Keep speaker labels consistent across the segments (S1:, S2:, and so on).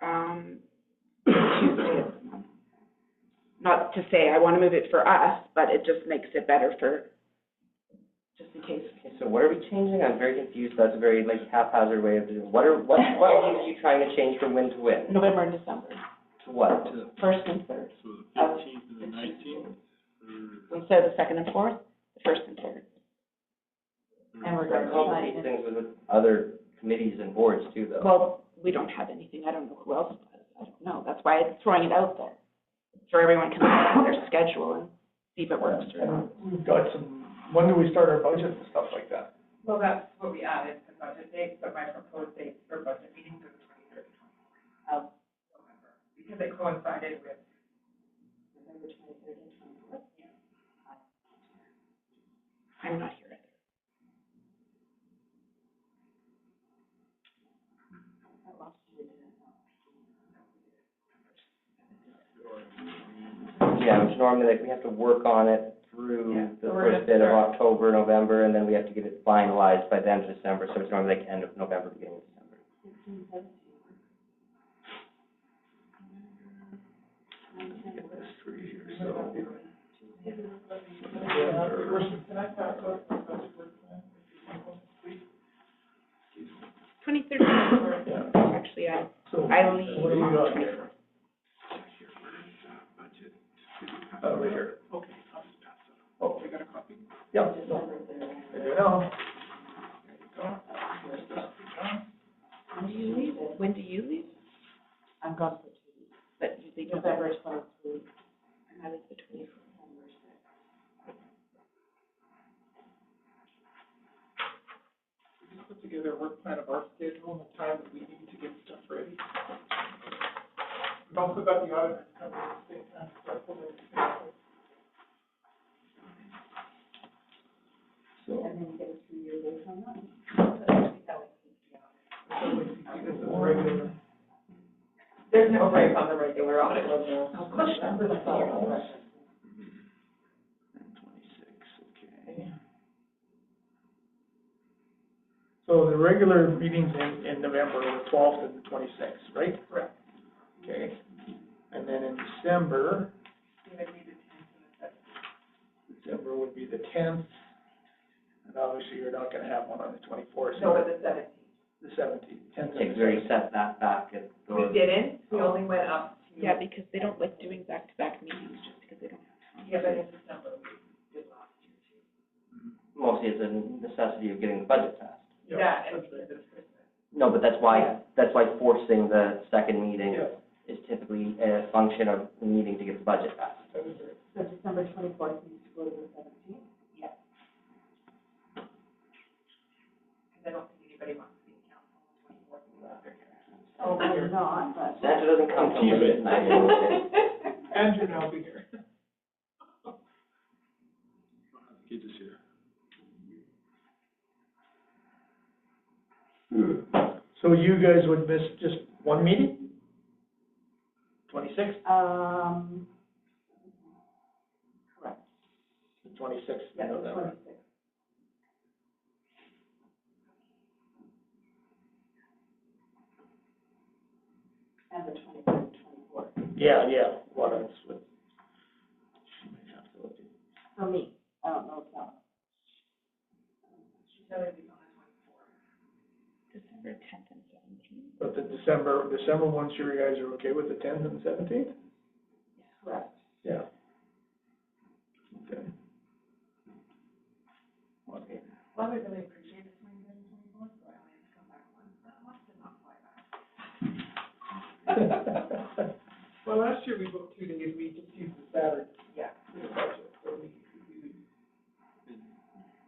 S1: um, Tuesday of the month. Not to say I want to move it for us, but it just makes it better for, just in case.
S2: Okay, so what are we changing? I'm very confused. That's a very like haphazard way of doing, what are, what, what are you trying to change from when to when?
S1: November and December,
S2: To what?
S1: first and third.
S3: So the fifteenth and the nineteenth,
S1: Instead of the second and fourth, the first and third. And we're
S2: Like,
S1: going
S2: complicate
S1: to,
S2: things with other committees and boards too, though.
S1: well, we don't have anything, I don't know who else does, I don't know, that's why I'm throwing it out there. So everyone can look at their schedule and see if it works or not.
S4: We've got some, when do we start our budget and stuff like that?
S5: Well, that's what we added, the budget dates, but my proposed dates for budget meetings are the twenty-third and twenty-fourth of November, because it coincided with. November twenty-third and twenty-fourth? Yeah.
S1: I'm not here either.
S2: Yeah, which normally like we have to work on it through
S5: Yeah,
S2: the
S5: so we're
S2: first
S5: gonna
S2: bit of
S5: start-
S2: October, November, and then we have to get it finalized by the end of December. So it's normally like end of November, beginning of December.
S1: Twenty-third and twenty-fourth, actually, I,
S4: So,
S1: I leave
S4: what do you
S1: on the
S4: got
S1: twenty-fourth.
S4: uh, right here? Okay. Oh, you got a copy? Yeah. no. There
S1: When
S4: you go.
S1: do you leave? When do you leave?
S5: I'm gone for two weeks,
S1: But you leave November,
S5: November twenty-three,
S1: and I leave the twenty-fourth.
S5: December sixth.
S4: Put together a work plan of our schedule and the time that we need to get stuff ready. We've also got the auditor coming at the same time, so I pulled everything out. So.
S5: And then you get a two-year lease on that. There's no break on the regular audit, was there? Of course.
S4: So the regular meetings in, in November were twelfth and twenty-sixth, right? Correct. Okay, and then in December. December would be the tenth, and obviously you're not gonna have one on the twenty-fourth,
S5: No,
S4: so
S5: but the seventeenth.
S4: the seventeenth, tenth and
S2: Like, we already set that back at
S5: We
S2: the,
S5: didn't, we only went up to.
S1: Yeah, because they don't like doing back-to-back meetings just because they don't have time.
S5: Yeah, but in December, we did last year too.
S2: mostly it's a necessity of getting the budget passed.
S4: Yeah,
S5: Yeah, and
S4: that's
S5: because it's Christmas.
S2: No, but that's
S5: Yeah.
S2: why, that's why forcing the second meeting
S4: Yeah,
S2: is typically a function of the meeting to get the budget passed.
S4: that is it.
S5: So December twenty-fourth needs to go to the seventeenth? Yes. Because I don't think anybody wants to be in council on the twenty-fourth. Oh, we're not, but.
S2: Santa doesn't come till late at night.
S4: Andrew and I'll be here.
S3: get this here.
S4: So you guys would miss just one meeting? Twenty-sixth?
S5: Um, correct,
S4: Twenty-sixth,
S5: yeah, the
S4: November.
S5: twenty-sixth. And the twenty-third, twenty-fourth,
S4: Yeah, yeah, what else would?
S5: for me, I don't know if that. She said it'd be on the twenty-fourth.
S1: December tenth and seventeenth.
S4: But the December, December ones, you guys are okay with the tenth and seventeenth?
S5: Correct.
S4: Yeah. Okay.
S5: Well, I would really appreciate it, twenty-third, twenty-fourth, so I only have to come back once, that must have not quite.
S4: Well, last year we booked two days, we just used the Saturday.
S5: Yeah.
S4: For the budget, so we, we would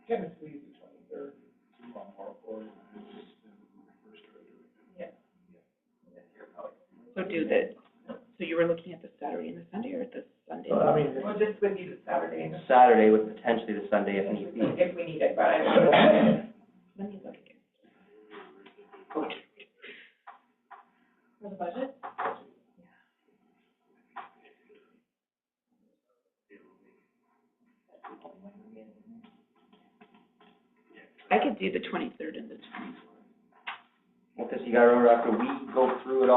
S4: technically use the twenty-third.
S1: So do the, so you were looking at the Saturday and the Sunday, or the Sunday?
S4: Well, I mean, it's-
S5: Well, this would be the Saturday, and
S2: Saturday with potentially the Sunday if need be.
S5: if we need it, but I.
S1: Let me look again.
S5: For the budget?
S1: I could do the twenty-third and the twenty-fourth.
S2: Because you gotta remember, after we go through it all.